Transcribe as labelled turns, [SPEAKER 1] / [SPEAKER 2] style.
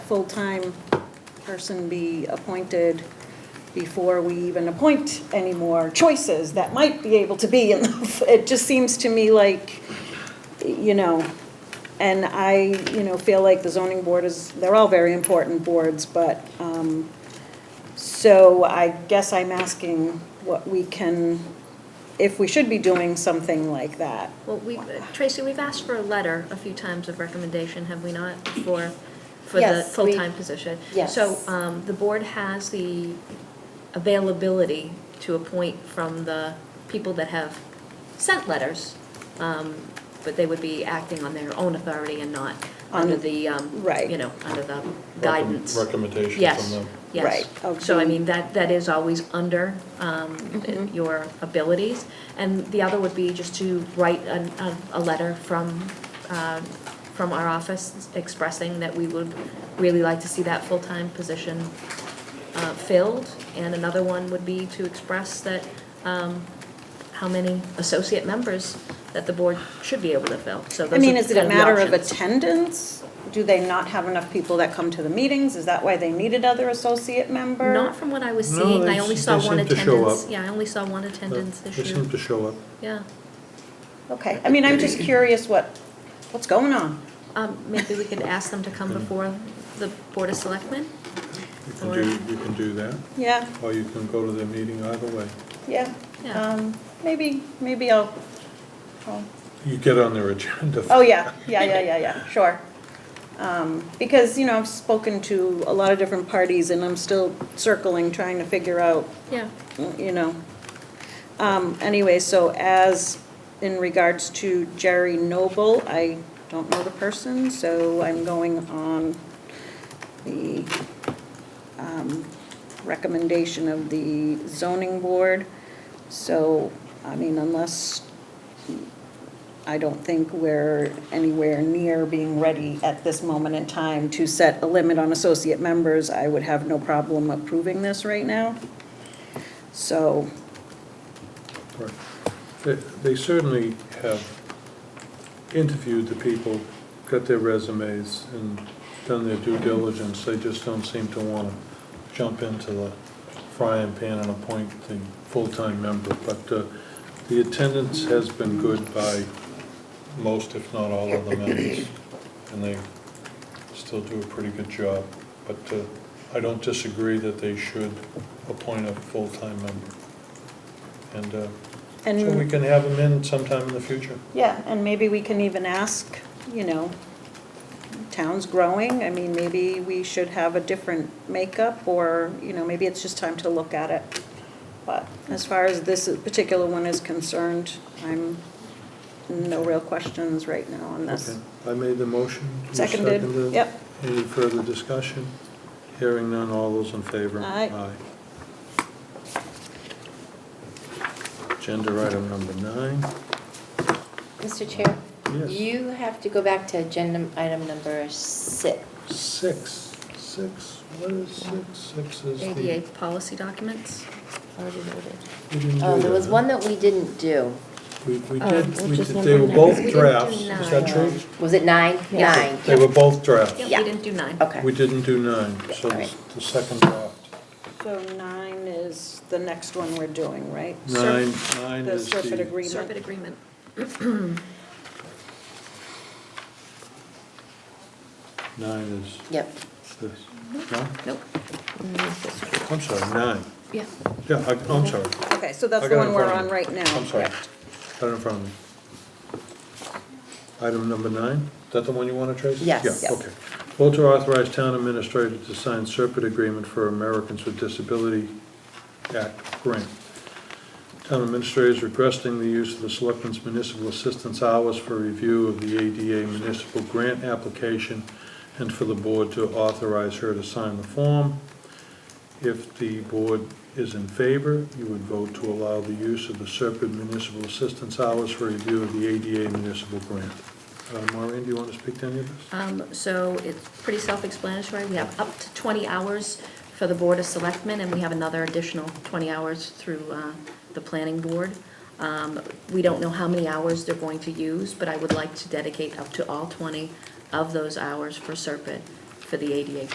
[SPEAKER 1] full-time person be appointed before we even appoint any more choices that might be able to be in the, it just seems to me like, you know, and I, you know, feel like the zoning board is, they're all very important boards, but, um, so I guess I'm asking what we can, if we should be doing something like that.
[SPEAKER 2] Well, we, Tracy, we've asked for a letter a few times of recommendation, have we not, for, for the
[SPEAKER 3] Yes, we-
[SPEAKER 2] full-time position?
[SPEAKER 3] Yes.
[SPEAKER 2] So, um, the board has the availability to appoint from the people that have sent letters, um, but they would be acting on their own authority and not under the, um,
[SPEAKER 1] right.
[SPEAKER 2] you know, under the guidance.
[SPEAKER 4] Recommendation from
[SPEAKER 2] Yes,
[SPEAKER 4] them.
[SPEAKER 2] yes.
[SPEAKER 1] Right,
[SPEAKER 2] So I
[SPEAKER 1] okay.
[SPEAKER 2] mean, that, that is always under um,
[SPEAKER 1] Mm-hmm.
[SPEAKER 2] your abilities. And the other would be just to write a, a, a letter from, uh, from our office expressing that we would really like to see that full-time position uh, filled. And another one would be to express that, um, how many associate members that the board should be able to fill. So those
[SPEAKER 1] I mean,
[SPEAKER 2] are
[SPEAKER 1] is it
[SPEAKER 2] kind
[SPEAKER 1] a
[SPEAKER 2] the
[SPEAKER 1] matter of
[SPEAKER 2] options.
[SPEAKER 1] attendance? Do they not have enough people that come to the meetings? Is that why they need another associate member?
[SPEAKER 2] Not from what I was
[SPEAKER 4] No,
[SPEAKER 2] seeing,
[SPEAKER 4] they
[SPEAKER 2] I only
[SPEAKER 4] s-
[SPEAKER 2] saw
[SPEAKER 4] they
[SPEAKER 2] one
[SPEAKER 4] seem to show
[SPEAKER 2] attendance,
[SPEAKER 4] up.
[SPEAKER 2] yeah, I only saw one attendance
[SPEAKER 4] They seem
[SPEAKER 2] issue,
[SPEAKER 4] to show up.
[SPEAKER 2] yeah.
[SPEAKER 1] Okay, I mean, I'm just curious what, what's going on?
[SPEAKER 2] Um, maybe we could ask them to come
[SPEAKER 4] Mm-hmm.
[SPEAKER 2] before the Board of Selectmen?
[SPEAKER 4] You can do, you can do that,
[SPEAKER 1] Yeah,
[SPEAKER 4] or you can go to their meeting either way.
[SPEAKER 1] yeah.
[SPEAKER 2] Yeah.
[SPEAKER 3] Uh,
[SPEAKER 1] Um, maybe, maybe I'll, I'll
[SPEAKER 4] You get on their agenda.
[SPEAKER 1] Oh, yeah, yeah, yeah, yeah, yeah, sure. Um, Because, you know, I've spoken to a lot of different parties, and I'm still circling, trying to figure out,
[SPEAKER 2] Yeah,
[SPEAKER 1] you know. Um, Anyway, so as in regards to Jerry Noble, I don't know the person, so I'm going on the um, recommendation of the zoning board. So, I mean, unless I don't think we're anywhere near being ready at this moment in time to set a limit on associate members. I would have no problem approving this right now. So,
[SPEAKER 4] Right. They- They certainly have interviewed the people, got their resumes, and done their due diligence. They just don't seem to want to jump into the frying pan and appoint the full-time member. But uh, the attendance has been good by most, if not all, of the members, and they still do a pretty good job. But uh, I don't disagree that they should appoint a full-time member. And uh, so we
[SPEAKER 1] and,
[SPEAKER 4] can have them in sometime in the future.
[SPEAKER 1] yeah, and maybe we can even ask, you know, town's growing, I mean, maybe we should have a different makeup, or, you know, maybe it's just time to look at it. But as far as this particular one is concerned, I'm, no real questions right now on this.
[SPEAKER 4] Okay. I made the motion. You
[SPEAKER 1] Seconded,
[SPEAKER 4] seconded.
[SPEAKER 1] yep.
[SPEAKER 4] Any further discussion? Hearing none, all those in favor?
[SPEAKER 1] Aye.
[SPEAKER 4] Aye. Agenda item number nine.
[SPEAKER 3] Mr. Chair?
[SPEAKER 4] Yes.
[SPEAKER 3] You have to go back to agenda item number six.
[SPEAKER 4] Six, six, what is six? Six is the.
[SPEAKER 2] ADA policy documents.
[SPEAKER 3] Already voted.
[SPEAKER 4] We didn't do
[SPEAKER 3] Oh, there was
[SPEAKER 4] that,
[SPEAKER 3] one
[SPEAKER 4] huh?
[SPEAKER 3] that we didn't do.
[SPEAKER 4] We, we
[SPEAKER 2] Um,
[SPEAKER 4] did, we
[SPEAKER 5] which
[SPEAKER 4] did,
[SPEAKER 5] is
[SPEAKER 4] they
[SPEAKER 5] number
[SPEAKER 4] were
[SPEAKER 2] nine.
[SPEAKER 4] both
[SPEAKER 2] We didn't do
[SPEAKER 4] drafts, is that
[SPEAKER 2] nine.
[SPEAKER 4] true?
[SPEAKER 3] Was it nine?
[SPEAKER 2] Yeah.
[SPEAKER 3] Nine.
[SPEAKER 4] They were both drafts.
[SPEAKER 2] Yep,
[SPEAKER 3] Yeah.
[SPEAKER 2] we didn't do nine.
[SPEAKER 3] Okay.
[SPEAKER 4] We didn't do nine, so
[SPEAKER 3] Yeah, all right.
[SPEAKER 4] the second draft.
[SPEAKER 1] So nine is the next one we're doing, right?
[SPEAKER 4] Nine,
[SPEAKER 1] Surf-
[SPEAKER 4] nine
[SPEAKER 1] The
[SPEAKER 4] is
[SPEAKER 1] Serpent
[SPEAKER 4] the,
[SPEAKER 2] Serpent
[SPEAKER 1] agreement.
[SPEAKER 2] agreement.
[SPEAKER 4] nine is
[SPEAKER 3] Yep.
[SPEAKER 4] this, no?
[SPEAKER 2] Nope,
[SPEAKER 4] I'm sorry, nine.
[SPEAKER 2] yeah.
[SPEAKER 4] Yeah, I- I'm sorry.
[SPEAKER 1] Okay, so that's
[SPEAKER 4] I
[SPEAKER 1] the one
[SPEAKER 4] got it in
[SPEAKER 1] we're
[SPEAKER 4] front
[SPEAKER 1] on
[SPEAKER 4] of me.
[SPEAKER 1] right now.
[SPEAKER 4] I'm sorry.
[SPEAKER 1] correct?
[SPEAKER 4] Got it in front of me. Item number nine, is that the one you want to trace?
[SPEAKER 3] Yes.
[SPEAKER 4] Yeah,
[SPEAKER 3] Yes.
[SPEAKER 4] okay. Vote to authorize town administrator to sign Serpent agreement for Americans with Disability Act grant. Town administrator is requesting the use of the Selectmen's Municipal Assistance Hours for review of the ADA municipal grant application and for the board to authorize her to sign the form. If the board is in favor, you would vote to allow the use of the Serpent Municipal Assistance Hours for review of the ADA municipal grant. Uh, Maureen, do you want to speak to any of this?
[SPEAKER 2] Um, so it's pretty self-explanatory, we have up to twenty hours for the Board of Selectmen, and we have another additional twenty hours through, uh, the Planning Board. Um, we don't know how many hours they're going to use, but I would like to dedicate up to all twenty of those hours for Serpent for the ADA